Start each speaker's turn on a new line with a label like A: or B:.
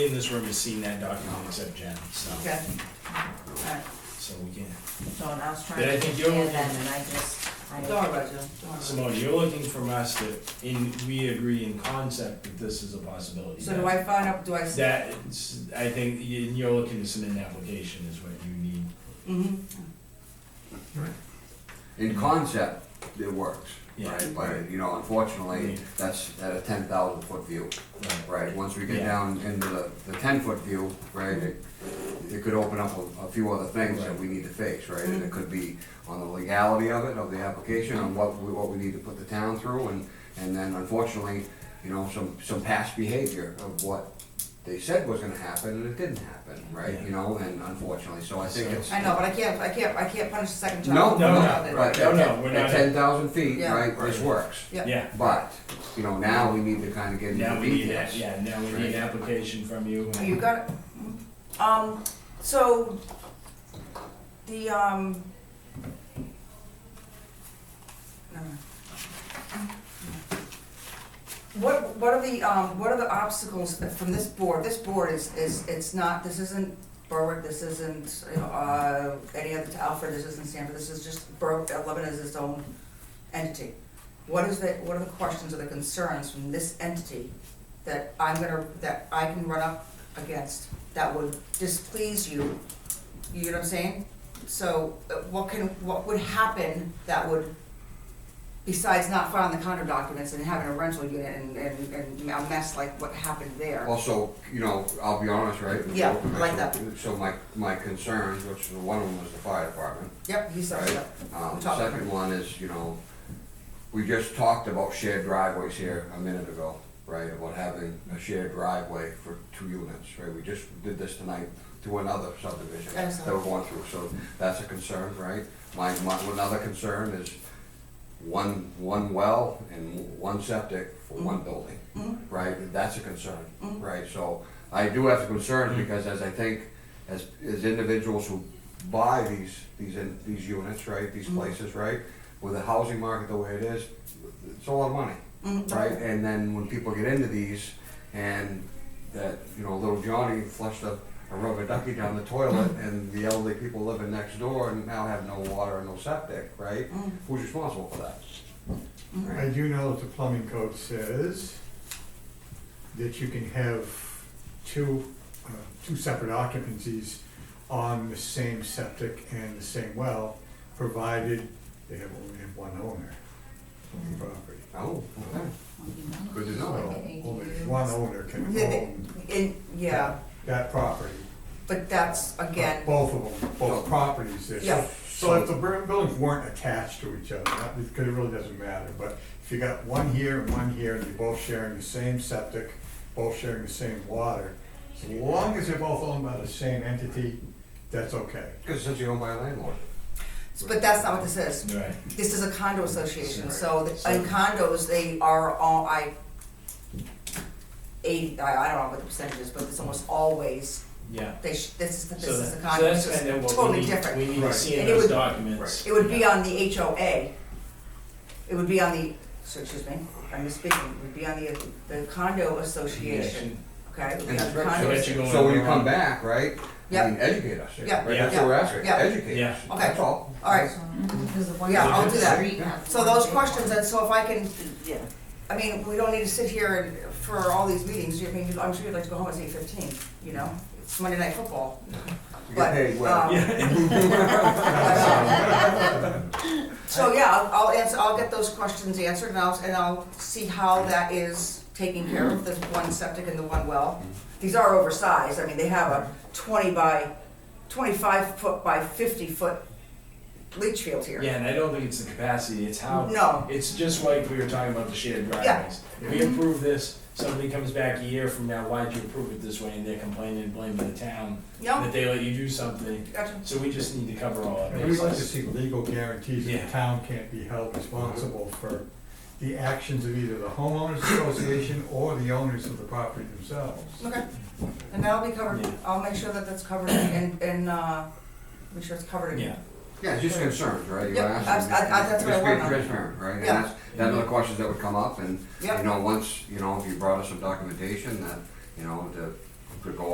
A: in this room has seen that document except Jen, so,
B: Okay, alright,
A: so we can't.
B: so I was trying
A: But I
B: to
A: think you're
B: understand
A: looking,
B: them and I just, I.
C: Don't worry about it, Joe, don't worry about
A: Simone, you're looking from us that in, we agree in concept that this is a possibility.
C: it. So do I find out, do I? s-
A: That, I think y- you're looking to submit an application is what you need.
C: Mhm.
D: in concept, it works,
A: Yeah.
D: right? But, you know, unfortunately, that's at a ten thousand foot view,
A: Right.
D: right? Once we get
A: Yeah.
D: down into the, the ten foot view, right, it, it could open up a, a few other things that we need to face, right? And
A: Mm-hmm.
D: it could be on the legality of it, of the application, on what, we- what we need to put the town through, and, and then unfortunately, you know, some, some past behavior of what they said was gonna happen, and it didn't happen, right?
A: Yeah.
D: You know, and unfortunately, so I think
A: So-
D: it's.
C: I know, but I can't, I can't, I can't punish the second child.
D: No, no,
A: no,
D: no, right,
A: no, no,
D: at
A: we're not-
D: at ten thousand feet,
C: Yeah.
D: right, this works.
C: Yeah.
A: Yeah,
D: But, you know, now we need to kind of get
A: now
D: into
A: we need that,
D: details.
A: yeah, now we need an application from you.
C: Oh, You got it? Mm-hmm.
B: Um, so, the, um. never mind.
C: Mm-hmm. What, what are the, um, what are the obstacles that from this board? This board is, is, it's not, this isn't Berwick, this isn't, you know, uh, any other, Alfred, this isn't Stanford, this is just Berwick, uh, Lebanon is its own entity. What is the, what are the questions or the concerns from this entity that I'm gonna, that I can run up against that would displease you? You know what I'm saying? So, uh, what can, what would happen that would besides not filing the condo documents and having a rental unit and, and, and a mess like what happened there.
D: Also, you know, I'll be honest, right?
C: Yeah, I like that.
D: So my, my concerns, which the one of them was the fire department.
C: Yep, he said,
D: Right.
C: yep.
D: Um,
C: Top.
D: second one is, you know, we just talked about shared driveways here a minute ago, right? About having a shared driveway for two units, right? We just did this tonight to another subdivision
C: Yes,
D: that
C: sir.
D: we're going through, so that's a concern, right? My, my, another concern is one, one well and one septic for one building,
C: Mhm.
D: right? That's a concern,
C: Mhm.
D: right? So I do have concerns because as I think, as, as individuals who buy these, these, in- these units, right, these places, right? With the housing market the way it is, it's a lot of money,
C: Mhm.
D: right? And then when people get into these and that, you know, little Johnny flushed a, a rubber ducky down the toilet and the elderly people living next door and now have no water and no septic, right?
C: Mm.
D: Who's responsible for that?
E: I do know that the plumbing code says that you can have two, uh, two separate occupancies on the same septic and the same well, provided they have only have one owner of the property.
D: Oh, okay,
C: Mm.
D: good to know.
E: So only one owner can
C: Yeah, they-
E: own
C: And, yeah,
E: that property.
C: but that's, again,
E: Both of them, both properties there. So-
C: Yeah.
E: So if the bur- buildings weren't attached to each other, that, because it really doesn't matter, but if you got one here and one here, and you're both sharing the same septic, both sharing the same water, as long as they're both owned by the same entity, that's okay.
D: Because since you're owned by a landlord.
C: but that's not what this is.
A: Right,
C: This is a condo association, so the-
A: So-
C: in condos, they are all, I, eighty, I, I don't know what the percentage is, but it's almost always,
A: yeah.
C: they, sh- this is, this
A: So
C: is a
A: that- so
C: condo,
A: that's
C: it's just
A: kind of what we
C: totally
A: need, we
C: different.
A: need to
E: Right.
A: see in
C: And it
A: those
C: would-
A: documents.
C: It would be on the HOA. It would be on the, so excuse me, I'm misspeaking, it would be on the, the condo association. Okay, we
D: And
C: have
D: that's right.
C: condos.
A: you going
D: So when you
A: around.
D: come back, right?
C: Yep.
D: I mean, educate us.
C: Yep.
D: Right, that's
C: Yeah.
D: what we're asking,
C: Yeah.
D: educate
A: Yeah.
D: us,
C: Okay.
D: that's all.
C: All right, Yeah, I'll do that. so those questions, and so if I can,
B: Yeah.
C: I mean, we don't need to sit here and, for all these meetings, I mean, I'm sure you'd like to go home at eight fifteen, you know? It's Monday night football,
D: You
C: But,
D: get paid well.
C: um,
A: Yeah,
C: so yeah, I'll, I'll answer, I'll get those questions answered, and I'll, and I'll see how that is taken care of, the one septic and the one well. These are oversized, I mean, they have a twenty by, twenty-five foot by fifty foot leach field here.
A: yeah, and I don't think it's the capacity, it's how.
C: No.
A: It's just like we were talking about the shared driveways. We approve this, somebody comes back a year from now, why'd you approve it this way, and they're complaining and blaming the town
C: No,
A: that they let you do something,
C: gotcha.
A: so we just need to cover all of
E: And we'd like to
A: this.
E: see legal guarantees that
A: Yeah.
E: the town can't be held responsible for the actions of either the homeowners association or the owners of the property themselves.
C: Okay, and that'll be covered,
A: Yeah.
C: I'll make sure that that's covered and, and, uh, make sure it's covered
A: Yeah,
C: again.
D: Yeah, it's just concerns, right? You
C: Yep,
D: ask
C: that's-
D: them,
C: I- I- that's what I
D: just
C: want.
D: be transparent, right? And
C: Yeah. Mm-hmm.
D: that's, that's the questions that would come up, and,
C: Yep.
D: you know, once, you know, if you brought us some documentation that, you know, to could go